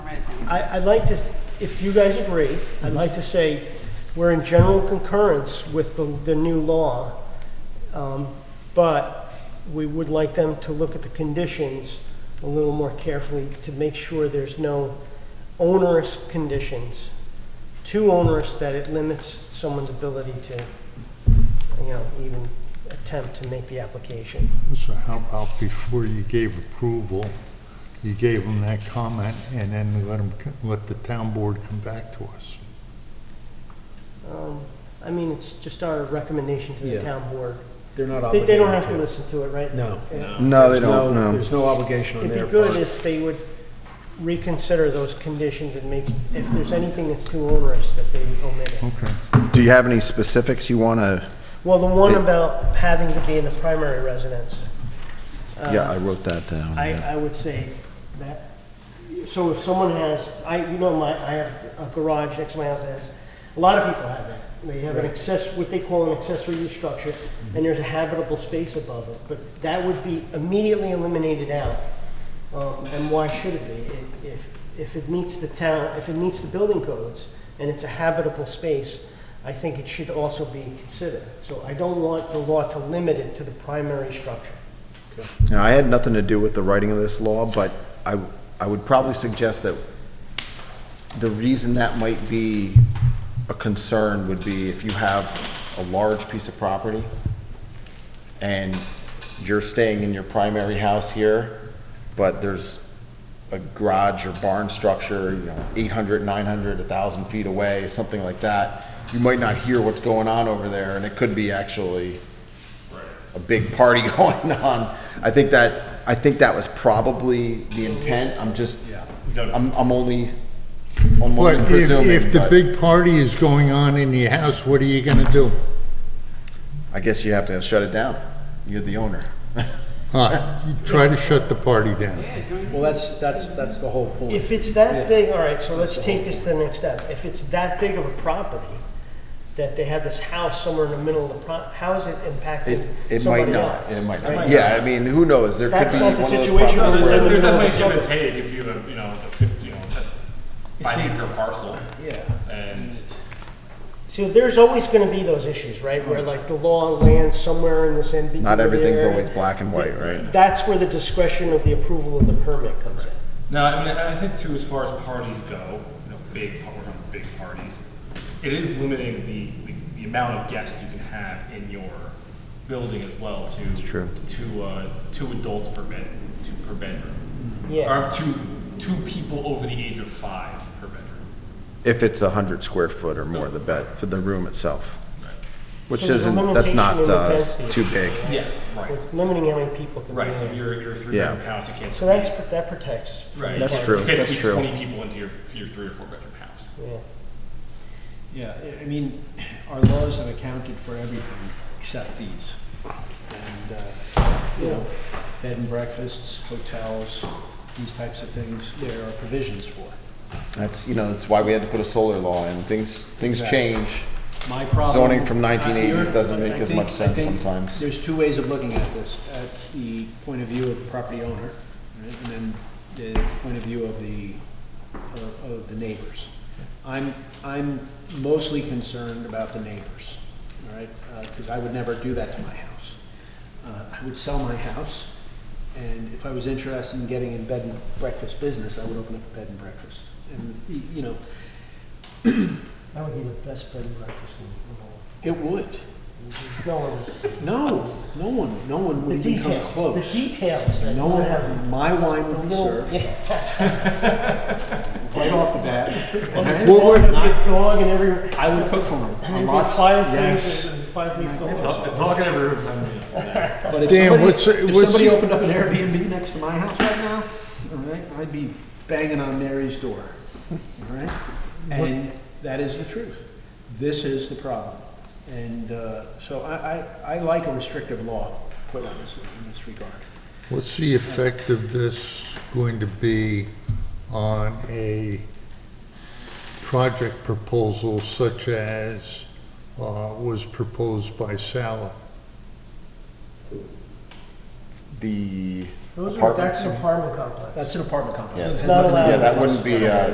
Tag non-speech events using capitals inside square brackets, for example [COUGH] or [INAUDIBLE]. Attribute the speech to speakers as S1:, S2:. S1: I, I'd like to, if you guys agree, I'd like to say, we're in general concurrence with the, the new law, um, but we would like them to look at the conditions a little more carefully to make sure there's no onerous conditions, too onerous that it limits someone's ability to, you know, even attempt to make the application.
S2: So how about before you gave approval, you gave them that comment and then let them, let the town board come back to us?
S1: Um, I mean, it's just our recommendation to the
S3: Yeah.
S1: town board.
S3: They're not
S1: They,
S3: obligated.
S1: they don't have to listen to it, right?
S3: No.
S1: Yeah.
S4: No, they
S3: There's
S4: don't, no.
S3: There's no obligation on
S1: It'd
S3: their
S1: be good
S3: part.
S1: if they would reconsider those conditions and make, if there's anything that's too onerous, that they omit it.
S2: Okay.
S4: Do you have any specifics you want to,
S1: Well, the one
S4: It-
S1: about having to be in the primary residence. uh,
S4: yeah, I wrote that down.
S1: I,
S4: yeah.
S1: I would say that, so if someone has, I, you know, my, I have a garage next to my house that has, a lot of people have that. They have an access, what they call an accessory use structure, and there's a habitable space above it, but that would be immediately eliminated out. Um, and why should it be? If- If, if it meets the town, if it meets the building codes and it's a habitable space, I think it should also be considered. So I don't want the law to limit it to the primary structure.
S4: Now, I had nothing to do with the writing of this law, but I, I would probably suggest that the reason that might be a concern would be if you have a large piece of property and you're staying in your primary house here, but there's a garage or barn structure, you know, 800, 900, 1,000 feet away, something like that, you might not hear what's going on over there, and it could be actually a big party [LAUGHS] going on. I think that, I think that was probably the intent, I'm just, I'm, I'm only, I'm only
S2: But if,
S4: presuming,
S2: if the
S4: but
S2: big party is going on in your house, what are you gonna do?
S4: I guess you have to shut it down. You're the owner.
S2: Huh, you try to shut the party down.
S3: Well, that's, that's, that's the whole point.
S1: If it's that big, all right, so let's take this to the next step. If it's that big of a property, that they have this house somewhere in the middle of the pro, how is it
S4: It,
S1: impacting
S4: it might
S1: somebody
S4: not,
S1: else?
S4: it might
S1: Right?
S4: not. Yeah, I mean, who knows? There could
S1: That's
S4: be
S1: not
S4: one
S1: the
S4: of those
S1: situation
S4: properties
S1: we're in.
S4: where,
S1: the
S5: There's
S1: middle of
S5: definitely give and
S1: summer.
S5: take if you have, a, you know, a fifty, you know, a five acre parcel.
S3: Yeah.
S5: And
S1: See, there's always gonna be those issues, right, where like the law lands somewhere in this ambiguous
S4: not everything's
S1: area.
S4: always black and white, right?
S1: That's where the discretion of the approval of the permit comes in.
S5: no, I mean, I I think too, as far as parties go, you know, big, par- we're talking big parties, it is limiting the, the, the amount of guests you can have in your building as well to
S4: true.
S5: to uh, two adults per bed, two per bedroom,
S1: Yeah,
S5: or two two people over the age of five per bedroom.
S4: If it's a hundred square foot or more, the bed, for the room itself. Which
S1: So there's a
S4: isn't, that's not,
S1: limitation in the
S4: uh,
S1: density.
S4: too big.
S5: Yes, right,
S1: it's limiting how many people can be
S5: right. So if
S1: in.
S5: you're you're a three bedroom
S4: Yeah.
S5: house, you can't.
S1: So that's, that protects. from
S5: Right.
S4: That's
S1: parties.
S4: true.
S5: You can't
S4: that's
S5: squeeze
S4: true.
S5: twenty people into your, your three or four bedroom house.
S1: Yeah.
S3: Yeah, I- I mean, our laws have accounted for everything except these. And, uh, you know, bed and breakfasts, hotels, these types of things, there are provisions for.
S4: That's, you know, that's why we had to put a solar law in. Things, things
S3: Exactly.
S4: change.
S3: My problem.
S4: Zoning from
S3: uh,
S4: 1980s
S3: you're-
S4: doesn't make
S3: I
S4: as
S3: think-
S4: much
S3: I
S4: sense
S3: think
S4: sometimes.
S3: There's two ways of looking at this, at the point of view of the property owner, right, and then the point of view of the, of- of the neighbors. I'm, I'm mostly concerned about the neighbors, all right, because I would never do that to my house. Uh, I would sell my house, and if I was interested in getting in bed and breakfast business, I would open up a bed and breakfast. And, y- you know,
S1: That would be the best bed and breakfast in the world.
S3: it would,
S1: There's no one.
S3: No, no one, no one
S1: The
S3: would even come
S1: details, the
S3: close.
S1: details. that
S3: No
S1: you
S3: one,
S1: have.
S3: had- my wine
S1: The
S3: would be
S1: little-
S3: served
S1: Yeah. [LAUGHS]
S3: right off the bat.
S1: A
S3: and
S2: Well,
S1: dog,
S2: what-
S1: and a dog in every,
S3: I would cook for them.
S1: and
S3: Lots-
S1: fireplaces,
S3: yes.
S1: and fireplaces go on.
S5: Dog dog in every room, something.
S3: But if
S2: Dan,
S3: somebody,
S2: what's-
S3: if
S2: what's
S3: somebody
S2: your-
S3: opened up an Airbnb next to my house right now, all right, I'd be banging on Mary's door, all right? And that is the truth. This is the problem. And uh, so I, I, I like a restrictive law put on this, in this regard.
S2: What's the effect of this going to be on a project proposal such as uh, was proposed by Sala?
S4: The
S1: Those are,
S4: apartments.
S1: that's an apartment complex.
S3: That's an apartment complex.
S4: Yes.
S1: It's not allowed.
S4: Yeah, that wouldn't be, uh,